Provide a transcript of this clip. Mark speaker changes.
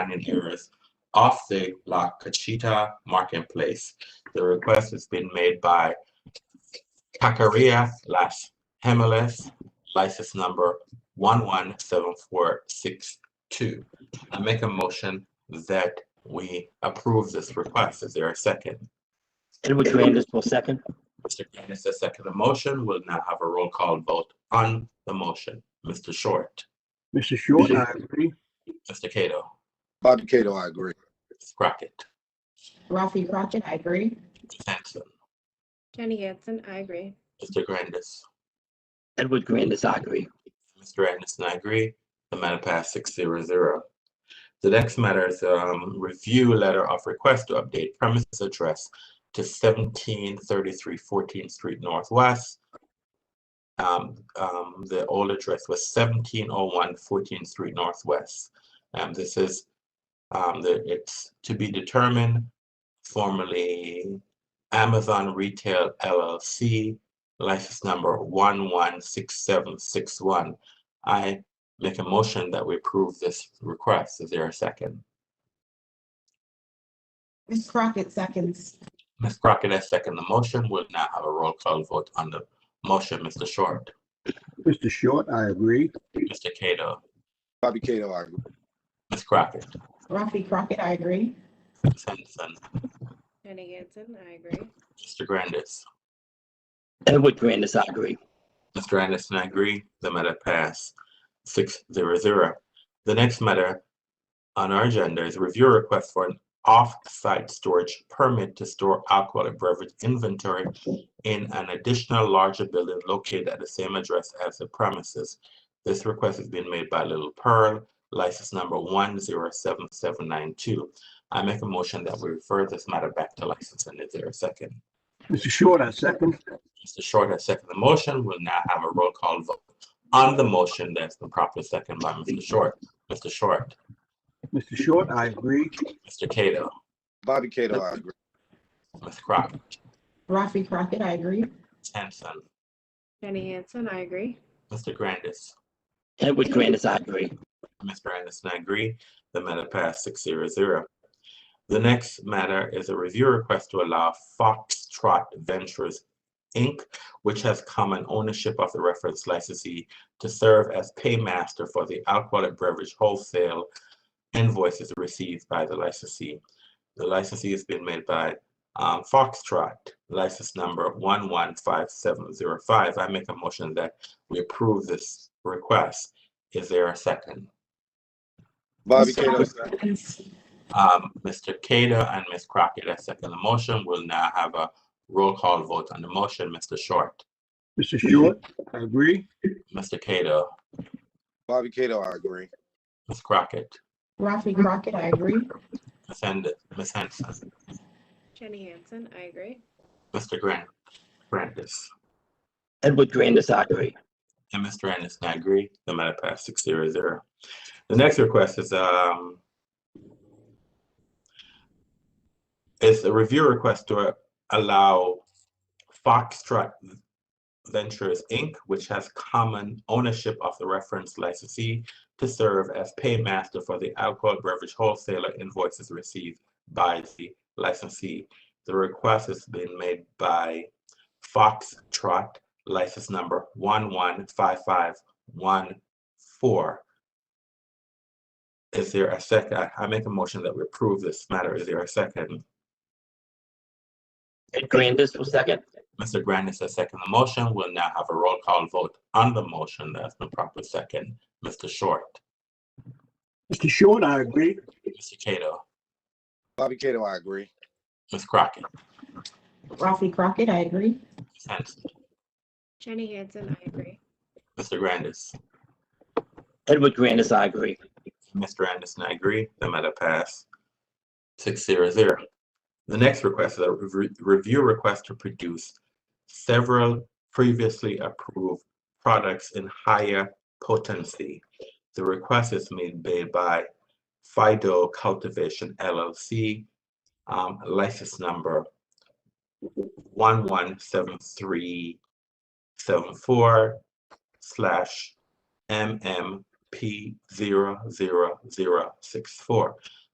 Speaker 1: and errors off the La Cachita Marketplace. The request has been made by Cacaria slash Hemeles, license number one one seven four six two. I make a motion that we approve this request. Is there a second?
Speaker 2: Edward Grandis will second.
Speaker 1: Mr. Grandis has seconded the motion. We'll now have a roll call vote on the motion. Mr. Short,
Speaker 3: Mr. Short, I agree.
Speaker 1: Mr. Cato,
Speaker 4: Bobby Cato, I agree.
Speaker 1: Mrs. Crockett,
Speaker 5: Rafi Crockett, I agree.
Speaker 1: Mrs. Hanson,
Speaker 6: Jenny Hansen, I agree.
Speaker 1: Mr. Grandis.
Speaker 2: Edward Grandis, I agree.
Speaker 1: Mr. Anderson, I agree. The matter passed six zero zero. The next matter is um review letter of request to update premises address to seventeen thirty-three Fourteenth Street Northwest. Um, um, the old address was 1701 14th Street Northwest. And this is um, the, it's to be determined formerly Amazon Retail LLC, license number one one six seven six one. I make a motion that we approve this request. Is there a second?
Speaker 5: Ms. Crockett seconds.
Speaker 1: Ms. Crockett has seconded the motion. We'll now have a roll call vote on the motion. Mr. Short,
Speaker 3: Mr. Short, I agree.
Speaker 1: Mr. Cato,
Speaker 4: Bobby Cato, I agree.
Speaker 1: Ms. Crockett,
Speaker 5: Rafi Crockett, I agree.
Speaker 1: Ms. Henderson,
Speaker 6: Jenny Hansen, I agree.
Speaker 1: Mr. Grandis.
Speaker 2: Edward Grandis, I agree.
Speaker 1: Mr. Anderson, I agree. The matter passed six zero zero. The next matter on our agenda is review request for an off-site storage permit to store alcoholic beverage inventory in an additional larger building located at the same address as the premises. This request has been made by Little Pearl, license number one zero seven seven nine two. I make a motion that we refer this matter back to licensing. Is there a second?
Speaker 3: Mr. Short, I second.
Speaker 1: Mr. Short has seconded the motion. We'll now have a roll call vote on the motion that's been properly seconded by Mr. Short. Mr. Short,
Speaker 3: Mr. Short, I agree.
Speaker 1: Mr. Cato,
Speaker 4: Bobby Cato, I agree.
Speaker 1: Ms. Crockett,
Speaker 5: Rafi Crockett, I agree.
Speaker 1: Ms. Hanson,
Speaker 6: Jenny Hansen, I agree.
Speaker 1: Mr. Grandis,
Speaker 2: Edward Grandis, I agree.
Speaker 1: Mr. Anderson, I agree. The matter passed six zero zero. The next matter is a review request to allow Foxtrot Ventures, Inc., which has common ownership of the reference licensee to serve as paymaster for the alcoholic beverage wholesale invoices received by the licensee. The licensee has been made by um, Foxtrot, license number one one five seven zero five. I make a motion that we approve this request. Is there a second?
Speaker 4: Bobby
Speaker 5: Ms.
Speaker 4: Cato,
Speaker 5: Crockett seconds.
Speaker 1: Um, Mr. Kato and Ms. Crockett, I second the motion. We'll now have a roll call vote on the motion. Mr. Short,
Speaker 3: Mr. Short, I agree.
Speaker 1: Mr. Kato,
Speaker 4: Bobby Cato, I agree.
Speaker 1: Ms. Crockett,
Speaker 5: Rafi Crockett, I agree.
Speaker 1: Ms. Hend- Ms. Henson,
Speaker 6: Jenny Hansen, I agree.
Speaker 1: Mr. Grant, Grandis,
Speaker 2: Edward Grandis, I agree.
Speaker 1: and Mr. Anderson, I agree. The matter passed six zero zero. The next request is, um, is a review request to allow Foxtrot Ventures, Inc., which has common ownership of the reference licensee to serve as paymaster for the alcohol beverage wholesaler invoices received by the licensee. The request has been made by Foxtrot, license number one one five five one four. Is there a second? I- I make a motion that we approve this matter. Is there a second?
Speaker 2: Ed Grandis will second.
Speaker 1: Mr. Grandis has seconded the motion. We'll now have a roll call vote on the motion that's been properly second. Mr. Short,
Speaker 3: Mr. Short, I agree.
Speaker 1: Mr. Cato,
Speaker 4: Bobby Cato, I agree.
Speaker 1: Ms. Crockett,
Speaker 5: Rafi Crockett, I agree.
Speaker 1: Ms. Hanson,
Speaker 6: Jenny Hansen, I agree.
Speaker 1: Mr. Grandis,
Speaker 2: Edward Grandis, I agree.
Speaker 1: Mr. Anderson, I agree. The matter passed six zero zero. The next request is a re- review request to produce several previously approved products in higher potency. The request is made ba- by Fido Cultivation LLC, um, license number one one seven three seven four slash MM P zero zero zero six four.